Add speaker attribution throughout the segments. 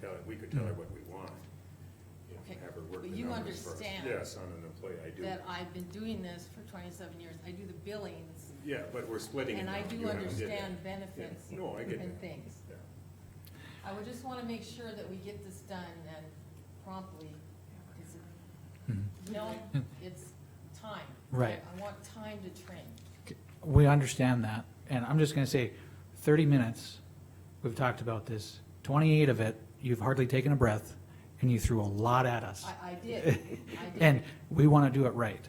Speaker 1: that, we could tell her
Speaker 2: Mm.
Speaker 1: what we want. you know,
Speaker 3: Okay,
Speaker 1: Have her work the
Speaker 3: but you
Speaker 1: numbers for us.
Speaker 3: understand
Speaker 1: Yes, on an employee, I do.
Speaker 3: that I've been doing this for twenty-seven years, I do the billings,
Speaker 1: Yeah, but we're splitting it
Speaker 3: and I
Speaker 1: now.
Speaker 3: do
Speaker 1: You haven't did that.
Speaker 3: understand benefits
Speaker 1: Yeah. No, I get
Speaker 3: and
Speaker 1: that.
Speaker 3: things.
Speaker 1: Yeah.
Speaker 3: I would just wanna make sure that we get this done and promptly, 'cause it- no,
Speaker 1: Hmm.
Speaker 3: it's time.
Speaker 2: Hmm. Right.
Speaker 3: I want time to train.
Speaker 2: We understand that, and I'm just gonna say, thirty minutes, we've talked about this, twenty-eight of it, you've hardly taken a breath, and you threw a lot at us.
Speaker 3: I, I did, I did.
Speaker 2: And we wanna do it right.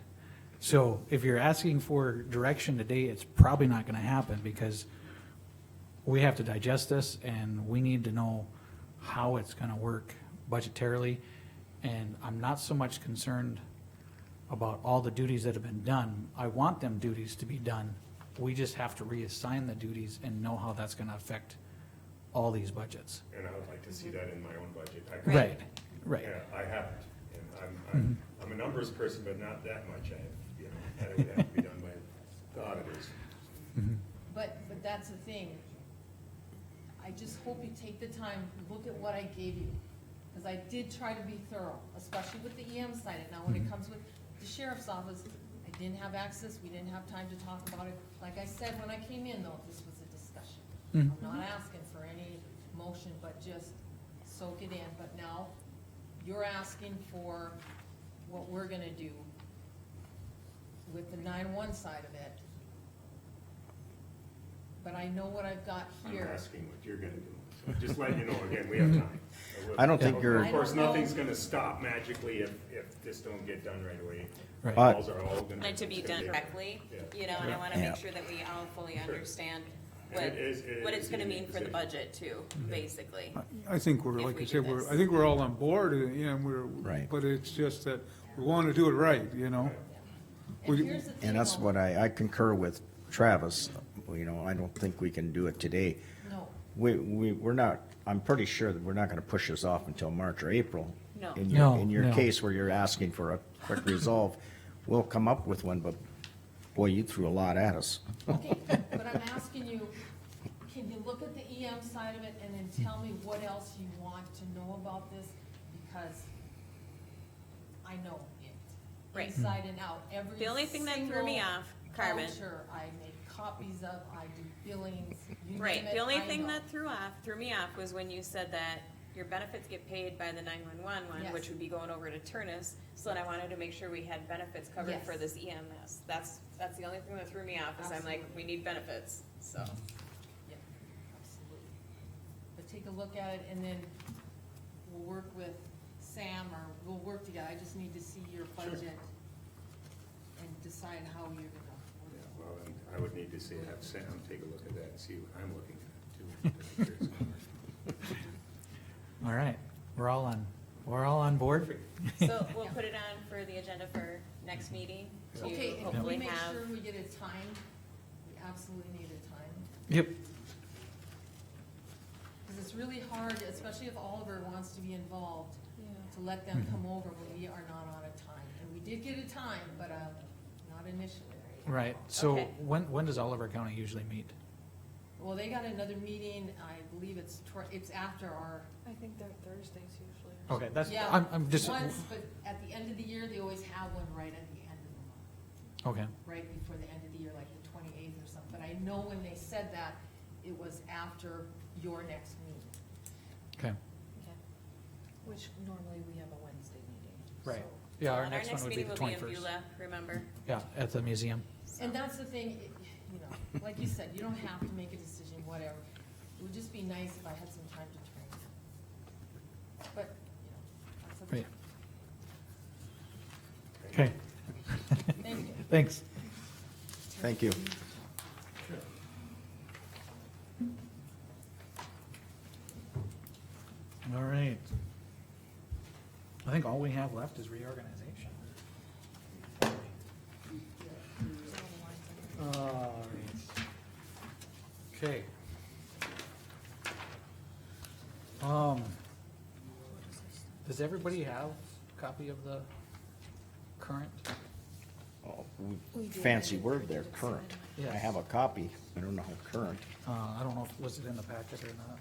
Speaker 2: So if you're asking for direction today, it's probably not gonna happen, because we have to digest this, and we need to know how it's gonna work budgetarily. And I'm not so much concerned about all the duties that have been done. I want them duties to be done. We just have to reassign the duties and know how that's gonna affect all these budgets.
Speaker 1: And I would like to see
Speaker 3: Mm-hmm.
Speaker 1: that in my own budget. I-
Speaker 2: Right, right. Mm-hmm.
Speaker 1: Yeah, I haven't, and I'm, I'm, I'm a numbers person, but not that much, I, you know, that would have to be done by the auditors.
Speaker 3: But, but that's the thing. I just hope you take the time, look at what I gave you, because I did try to be thorough, especially with the EM side. And now when it comes with the sheriff's office, I didn't have access, we didn't have time to talk about it. Like I said, when I came in though, this was a discussion. I'm not asking for any motion, but just soak it in. But now, you're asking for what we're gonna do with the nine-one side of it. But I know what I've got
Speaker 1: I'm
Speaker 3: here.
Speaker 1: asking what you're gonna do, so just letting you know, again, we have time. So we'll-
Speaker 4: I don't think
Speaker 1: Of
Speaker 4: you're-
Speaker 3: I
Speaker 1: course,
Speaker 3: don't know.
Speaker 1: nothing's gonna stop magically if, if this don't get done right away.
Speaker 2: Right.
Speaker 4: I-
Speaker 1: Calls are all gonna.
Speaker 5: wanted to be
Speaker 1: it's gonna
Speaker 5: done correctly,
Speaker 1: Yeah.
Speaker 5: you know, and I wanna
Speaker 4: Yeah.
Speaker 5: make sure that we all fully understand
Speaker 1: And
Speaker 5: what,
Speaker 1: it is- it
Speaker 5: what
Speaker 1: is
Speaker 5: it's gonna
Speaker 1: a
Speaker 5: mean for the
Speaker 1: decision.
Speaker 5: budget too, basically.
Speaker 6: I think we're,
Speaker 5: If
Speaker 6: like
Speaker 5: we
Speaker 6: you
Speaker 5: do
Speaker 6: said, we're,
Speaker 5: this.
Speaker 6: I think we're all on board, and and we're,
Speaker 4: Right.
Speaker 6: but it's just that we want to do it right, you know?
Speaker 3: And
Speaker 6: We-
Speaker 3: here's the thing.
Speaker 4: And that's
Speaker 3: though.
Speaker 4: what I, I concur with Travis, you know, I don't think we can do it today.
Speaker 3: No,
Speaker 4: We, we, we're not, I'm pretty sure that we're not gonna push this off until March or April.
Speaker 5: No.
Speaker 4: In your,
Speaker 2: No,
Speaker 4: in your
Speaker 2: no.
Speaker 4: case where you're asking for a quick resolve, we'll come up with one, but boy, you threw a lot at us.
Speaker 3: okay, but I'm asking you, can you look at the EM side of it and then tell me what else you want to know about this? Because I know it,
Speaker 5: Right.
Speaker 3: inside and out, every
Speaker 5: The only thing that threw me
Speaker 3: single
Speaker 5: off, Carmen,
Speaker 3: Voucher, I make copies of, I do billings, you
Speaker 5: right,
Speaker 3: name it,
Speaker 5: the only
Speaker 3: I
Speaker 5: thing
Speaker 3: know.
Speaker 5: that threw off, threw me off was when you said that your benefits get paid by the nine-one-one one,
Speaker 3: Yes.
Speaker 5: which would be going over to Turnus, so then I wanted to make sure we had benefits covered
Speaker 3: Yes.
Speaker 5: for this EMS. That's, that's the only thing that threw me off, is I'm like,
Speaker 3: Absolutely.
Speaker 5: we need benefits, so.
Speaker 3: Yeah, absolutely. But take a look at it and then we'll work with Sam or we'll work together. I just need to see your budget and decide how you're gonna.
Speaker 1: Yeah, Well, and I would need to see, have Sam take a look at that and see what I'm looking at too. to make sure it's-
Speaker 2: All right, we're all on, we're all on board?
Speaker 5: So we'll put it on for the agenda for next meeting to
Speaker 3: Okay, if we
Speaker 5: hopefully
Speaker 3: make
Speaker 5: have.
Speaker 3: sure we get a time, we absolutely need a time.
Speaker 2: Yep.
Speaker 3: Cause it's really hard, especially if Oliver wants to be involved, to let them come over when we are not on a time. And we did get a time, but, um, not initially.
Speaker 2: Right, so
Speaker 5: Okay.
Speaker 2: when, when does Oliver County usually meet?
Speaker 3: Well, they got another meeting, I believe it's, tw- it's after our
Speaker 7: I think they're Thursdays usually. or
Speaker 2: Okay, that's,
Speaker 3: Yeah,
Speaker 2: I'm, I'm just,
Speaker 3: Once, but at the end of the year, they always have one right at the end of the month,
Speaker 2: okay, right,
Speaker 3: right before the end of the year, like the twenty-eighth or something. But I know when they said that, it was after your next meeting.
Speaker 2: okay,
Speaker 7: something. Which normally we have a Wednesday meeting.
Speaker 2: right.
Speaker 7: so-
Speaker 2: Yeah,
Speaker 5: So
Speaker 2: our
Speaker 5: and
Speaker 2: next one would be the
Speaker 5: meeting will be in
Speaker 2: twenty-first.
Speaker 5: Beulah, remember?
Speaker 2: Yeah, at the museum.
Speaker 3: And that's the thing, it- you know, like you said, you don't have to make a decision, whatever. It would just be nice if I had some time to train. But, you know, that's okay.
Speaker 2: Right. Okay,
Speaker 3: Thank you.
Speaker 2: thanks.
Speaker 4: Thank you.
Speaker 2: All right. I think all we have left is reorganization. All right. Okay. Um, does everybody have a copy of the current?
Speaker 4: Oh, Fancy word there, current. I
Speaker 2: Yes.
Speaker 4: have a copy, I don't know how current.
Speaker 2: Uh, I don't know, if was it in the packet or not?